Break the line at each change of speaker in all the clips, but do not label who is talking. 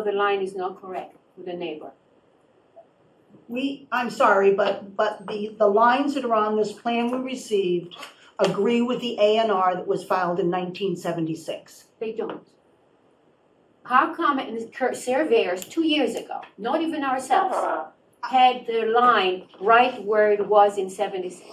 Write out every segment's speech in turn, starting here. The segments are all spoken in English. So the line is not correct with the neighbor.
We, I'm sorry, but, but the, the lines that are on this plan we received agree with the A and R that was filed in nineteen seventy-six.
They don't. How come and the cur- surveyors two years ago, not even ourselves, had the line right where it was in seventy-six?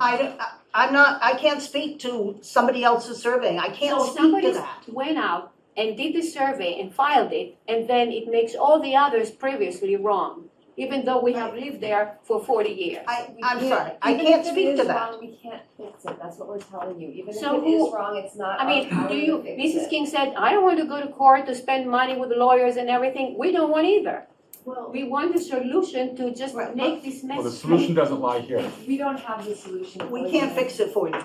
I, don't- I- I'm not, I can't speak to somebody else's surveying, I can't
So
speak to
somebody
that.
went out and did the survey and filed it, and then it makes all the others previously wrong, even though we have lived there for forty years.
I,
We
I'm
can't-
sorry, I
even
can't
if it
speak to
is
that.
wrong, We can't fix it, that's what we're telling you, even if
So
it is
who-
wrong, it's not
I
our
mean,
power
do
to
you,
fix
Mrs.
it.
King said, I don't want to go to court to spend money with lawyers and everything, we don't want either.
Well,
We want a solution to just
Right.
make this
Well, the
mess
solution
straight.
doesn't lie here.
we don't have the solution.
We
for
can't
you.
fix it for you.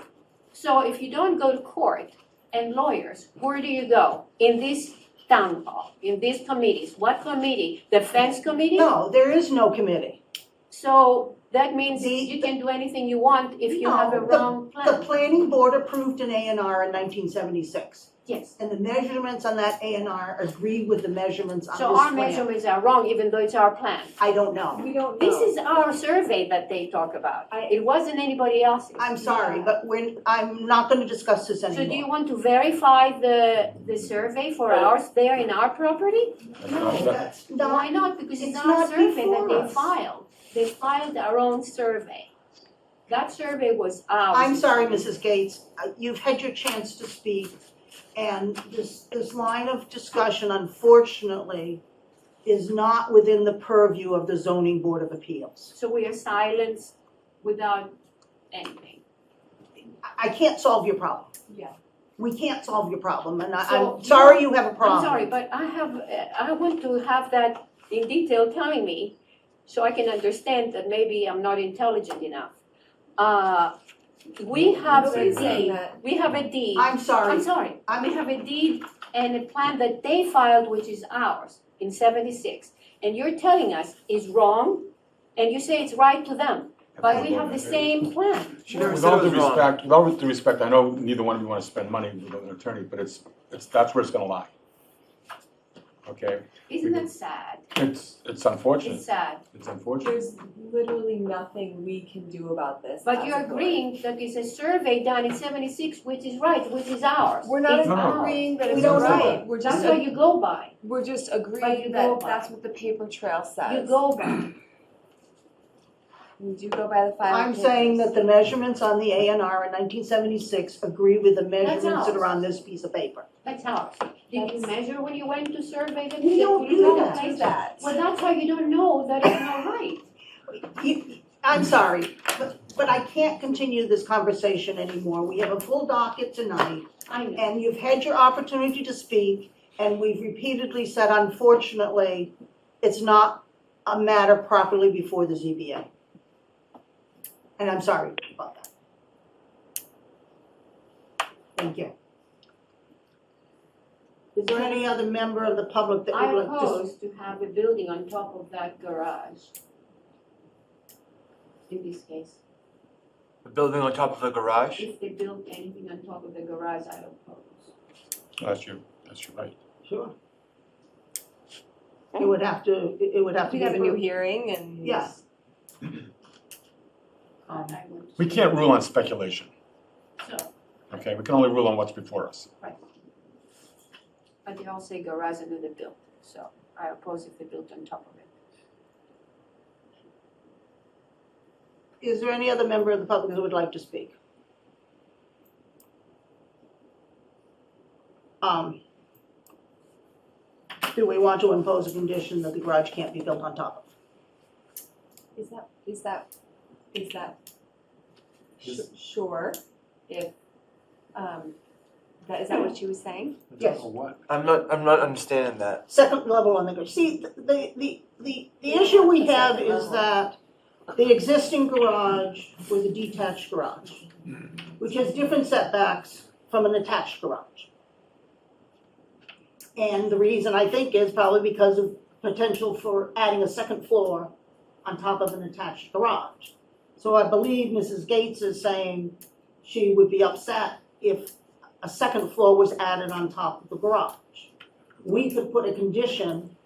So if you don't go to court and lawyers, where do you go? In this town hall, in these committees, what committee? The fence committee?
No, there is no committee.
So that means
The-
you can do anything you want if you have a
No, the-
wrong
The
plan.
planning board approved an A and R in nineteen seventy-six,
Yes.
and the measurements on that A and R agree with the measurements on this
So our
plan.
measurements are wrong even though it's our plan.
I don't know.
We don't know.
This is our survey that they talk about.
I-
It wasn't anybody else's.
I'm sorry,
Yeah.
but we're, I'm not gonna discuss this
So do you
anymore.
want to verify the, the survey for ours there in our property?
That's
No,
not- uh, that-
that's not,
Why not? Because it's
it's
our
not
survey that
before
they
us.
filed. They filed our own survey. That survey was ours.
I'm sorry, Mrs. Gates, Uh, you've had your chance to speak. And this, this line of discussion unfortunately is not within the purview of the zoning board of appeals.
So we are silenced without anything.
I- I can't solve your problem.
Yeah.
We can't solve your problem, and I,
So-
I'm sorry you have a problem.
I'm sorry, but I have, uh, I want to have that in detail telling me so I can understand that maybe I'm not intelligent enough. Uh, We have a
Nobody's
saying
deed,
that.
we have a deed.
I'm
I'm
sorry,
sorry,
I'm-
we have a deed and a plan that they filed, which is ours, in seventy-six. And you're telling us is wrong, and you say it's right to them, but we have the same plan.
She never
With
said
all
it
due
was wrong.
respect, with all due respect, I know neither one of you want to spend money with an attorney, but it's, it's, that's where it's gonna lie. Okay,
Isn't that sad?
it's, it's unfortunate,
It's sad.
it's unfortunate.
There's literally nothing we can do about this.
But
as
you're
a board.
agreeing that it's a survey done in seventy-six, which is right, which is ours.
We're not
It's
No, no.
ours.
agreeing that
We
it's
don't know.
right, we're
That's
just,
what you go by.
we're just
But you
agreeing
go
that
by.
that's what the paper trail
You
says.
go by.
We do go by the five
I'm saying that the measurements on the A and R in nineteen seventy-six agree with the measurements that are
ours.
on this piece of paper.
That's ours. Did you
That's-
measure when you went to survey the?
We don't
the-
do
the
that.
place?
that.
Well, that's how you don't know that it's not right.
You, I'm sorry, but, but I can't continue this conversation anymore. We have a full docket tonight,
I know.
and you've had your opportunity to speak, and we've repeatedly said unfortunately, it's not a matter properly before the ZBA. And I'm sorry about that. Thank you. Is there any other member of the public that
I
would like to?
oppose to have a building on top of that garage. In this case,
The building on top of a garage?
if they build anything on top of the garage, I oppose.
That's your, that's your right.
Sure. It would have to, it it would have to
We
be
have a new
approved.
hearing and.
Yeah.
And I would-
Um, We can't rule on speculation,
So,
okay? We can only rule on what's before us.
but they all say garage and then they build, so I oppose if they built on top of it.
Is there any other member of the public who would like to speak? Um, Do we want to impose a condition that the garage can't be built on top of?
Is that, is that, is that sh-
Is-
sure if, um, that, is that what she was saying?
Yes.
I'm not, I'm not understanding that.
Second level on the garage. See, the, the- the, the, the issue we have is that the existing garage was a detached garage, which has different setbacks from an attached garage. And the reason I think is probably because of potential for adding a second floor on top of an attached garage. So I believe Mrs. Gates is saying she would be upset if a second floor was added on top of the garage. We could put a condition